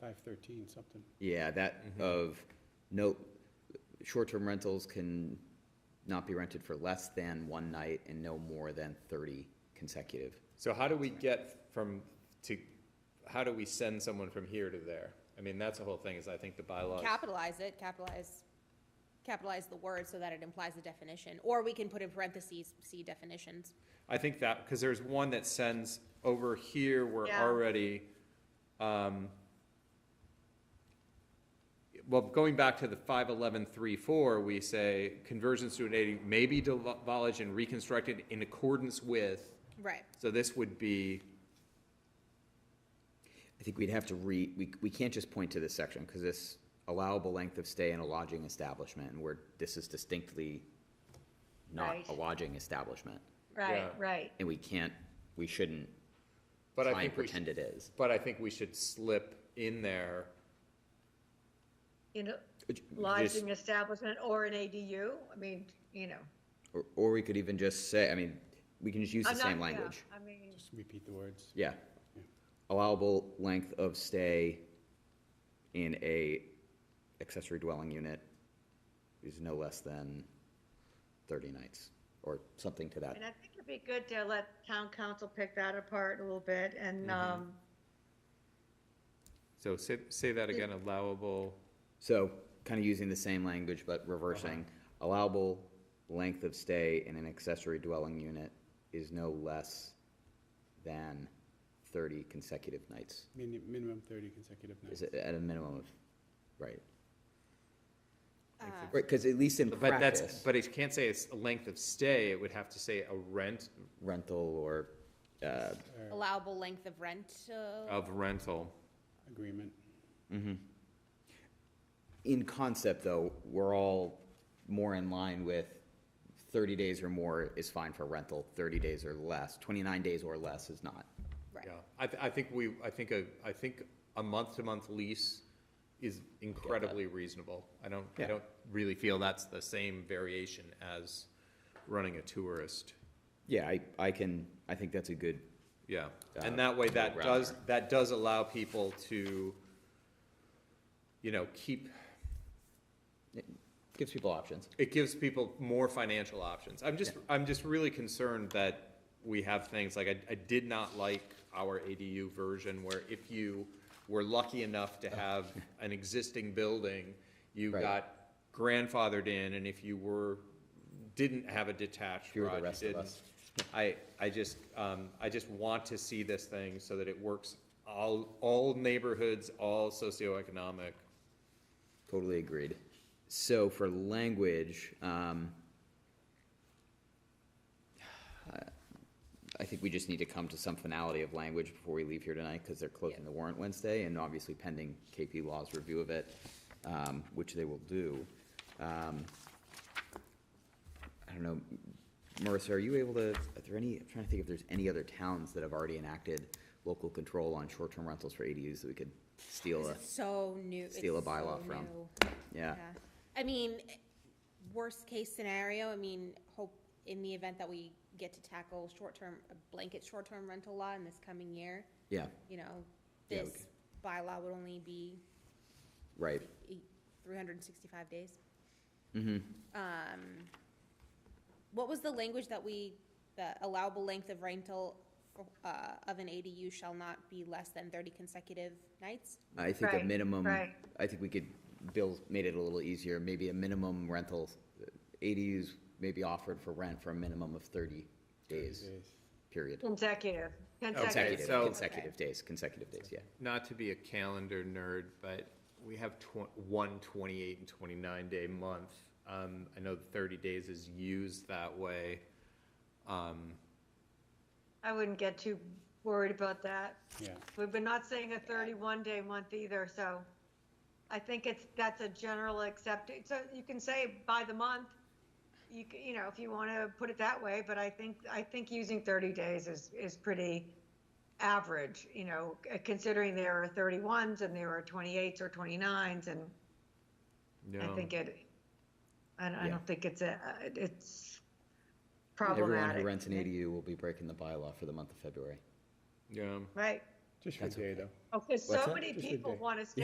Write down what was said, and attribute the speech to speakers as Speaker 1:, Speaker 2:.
Speaker 1: five thirteen something.
Speaker 2: Yeah, that
Speaker 3: Mm-hmm.
Speaker 2: of, no, short-term rentals can not be rented for less than one night and no more than thirty consecutive.
Speaker 3: So how do we get from, to, how do we send someone from here to there? I mean, that's the whole thing, is I think the bylaws.
Speaker 4: Capitalize it, capitalize, capitalize the word so that it implies the definition, or we can put in parentheses, see definitions.
Speaker 3: I think that, because there's one that sends over here, we're
Speaker 4: Yeah.
Speaker 3: already, um, well, going back to the five eleven three four, we say conversions to an ADU may be demolished and reconstructed in accordance with,
Speaker 4: Right.
Speaker 3: so this would be,
Speaker 2: I think we'd have to re, we, we can't just point to this section, because this allowable length of stay in a lodging establishment, and where this is distinctly not
Speaker 5: Right.
Speaker 2: a lodging establishment,
Speaker 5: Right,
Speaker 3: Yeah.
Speaker 5: right.
Speaker 2: and we can't, we shouldn't
Speaker 3: but I
Speaker 2: try and
Speaker 3: think we should,
Speaker 2: pretend it is.
Speaker 3: but I think we should slip in there.
Speaker 5: You know,
Speaker 2: Which- just-
Speaker 5: lodging establishment or an ADU, I mean, you know.
Speaker 2: Or, or we could even just say, I mean, we can just use the
Speaker 5: I'm not-
Speaker 2: same
Speaker 5: yeah,
Speaker 2: language.
Speaker 5: I mean,
Speaker 1: Just repeat the words.
Speaker 2: Yeah. Allowable length of stay in a accessory dwelling unit is no less than thirty nights, or something to that.
Speaker 5: and I think it'd be good to let town council pick that apart a little bit and,
Speaker 2: Mm-hmm.
Speaker 5: um,
Speaker 3: So say, say that again, allowable.
Speaker 2: So, kind of using the same language but reversing,
Speaker 5: Uh-huh.
Speaker 2: allowable length of stay in an accessory dwelling unit is no less than thirty consecutive nights.
Speaker 1: Min- Minimum thirty consecutive nights.
Speaker 2: Is it at a minimum of, right? Right, because at least in
Speaker 3: Uh, But that's,
Speaker 2: practice,
Speaker 3: but it can't say it's a length of stay, it would have to say a rent
Speaker 2: rental or, uh,
Speaker 4: Allowable length of uh, rental.
Speaker 2: Oh,
Speaker 3: of rental.
Speaker 1: Agreement.
Speaker 2: in concept though, we're all more in line with thirty days or more is fine for rental, thirty days or less, twenty-nine days or less is not.
Speaker 4: Right.
Speaker 3: Yeah, I, th- I think we, I think a, I think a month-to-month lease is incredibly reasonable. I don't, I
Speaker 2: Yeah.
Speaker 3: don't really feel that's the same variation as running a tourist.
Speaker 2: Yeah, I, I can, I think that's a good,
Speaker 3: Yeah,
Speaker 2: Uh,
Speaker 3: and that way, that
Speaker 2: route
Speaker 3: does,
Speaker 2: there.
Speaker 3: that does allow people to, you know, keep,
Speaker 2: gives people options.
Speaker 3: it gives people more financial options. I'm just, I'm just really concerned that we have things, like, I, I did not like our ADU version where if you were lucky enough to have an existing building, you
Speaker 2: Oh. Right.
Speaker 3: got grandfathered in, and if you were, didn't have a detached
Speaker 2: You're the
Speaker 3: garage, you
Speaker 2: rest of
Speaker 3: didn't.
Speaker 2: us.
Speaker 3: I, I just, um, I just want to see this thing so that it works all, all neighborhoods, all socioeconomic.
Speaker 2: Totally agreed. So for language, um, I- I think we just need to come to some finality of language before we leave here tonight, because they're closing the warrant Wednesday, and obviously pending KP Law's review of it, um, which they will do. Um, I don't know, Marissa, are you able to, are there any, I'm trying to think if there's any other towns that have already enacted local control on short-term rentals for ADUs that we could steal a,
Speaker 4: It's so new. it's
Speaker 2: steal a bylaw
Speaker 4: so
Speaker 2: from.
Speaker 4: new.
Speaker 2: yeah.
Speaker 4: Yeah. I mean, worst case scenario, I mean, hope in the event that we get to tackle short-term, a blanket short-term rental law in this coming year,
Speaker 2: Yeah,
Speaker 4: you know,
Speaker 2: Yeah,
Speaker 4: this bylaw would only be
Speaker 2: right.
Speaker 4: three hundred and sixty-five days. Um, what was the language that we, the allowable length of rental, uh, of an ADU shall not be less than thirty consecutive nights?
Speaker 2: I think a
Speaker 5: Right,
Speaker 2: minimum,
Speaker 5: right.
Speaker 2: I think we could, Bill made it a little easier, maybe a minimum rental, ADUs may be offered for rent for a minimum of thirty days,
Speaker 1: Days.
Speaker 2: period.
Speaker 5: consecutive,
Speaker 2: Consecutive,
Speaker 5: consecutive.
Speaker 3: so-
Speaker 2: consecutive days, consecutive days, yeah.
Speaker 3: Not to be a calendar nerd, but we have tw- one 28 and twenty-nine day month. Um, I know thirty days is used that way. Um,
Speaker 5: I wouldn't get too worried about that.
Speaker 1: Yeah,
Speaker 5: We've been not saying a thirty-one day month either, so I think it's, that's a general accepted, so you can say by the month. You, c- you know, if you want to put it that way, but I think, I think using thirty days is, is pretty average, you know, c- considering there are thirty-ones and there are twenty-eights or twenty-nines and I
Speaker 3: no.
Speaker 5: think it, I don't, I
Speaker 2: Yeah.
Speaker 5: don't think it's a, it's
Speaker 2: Everyone
Speaker 5: problematic.
Speaker 2: who rents an ADU will be breaking the bylaw for the month of February.
Speaker 3: Yeah,
Speaker 5: Right,
Speaker 1: Just for a
Speaker 2: That's
Speaker 1: day,
Speaker 2: okay.
Speaker 1: though.
Speaker 5: Oh, because
Speaker 2: What's
Speaker 5: so
Speaker 2: that?
Speaker 5: many
Speaker 1: Just a
Speaker 5: people
Speaker 1: day.
Speaker 5: want to stay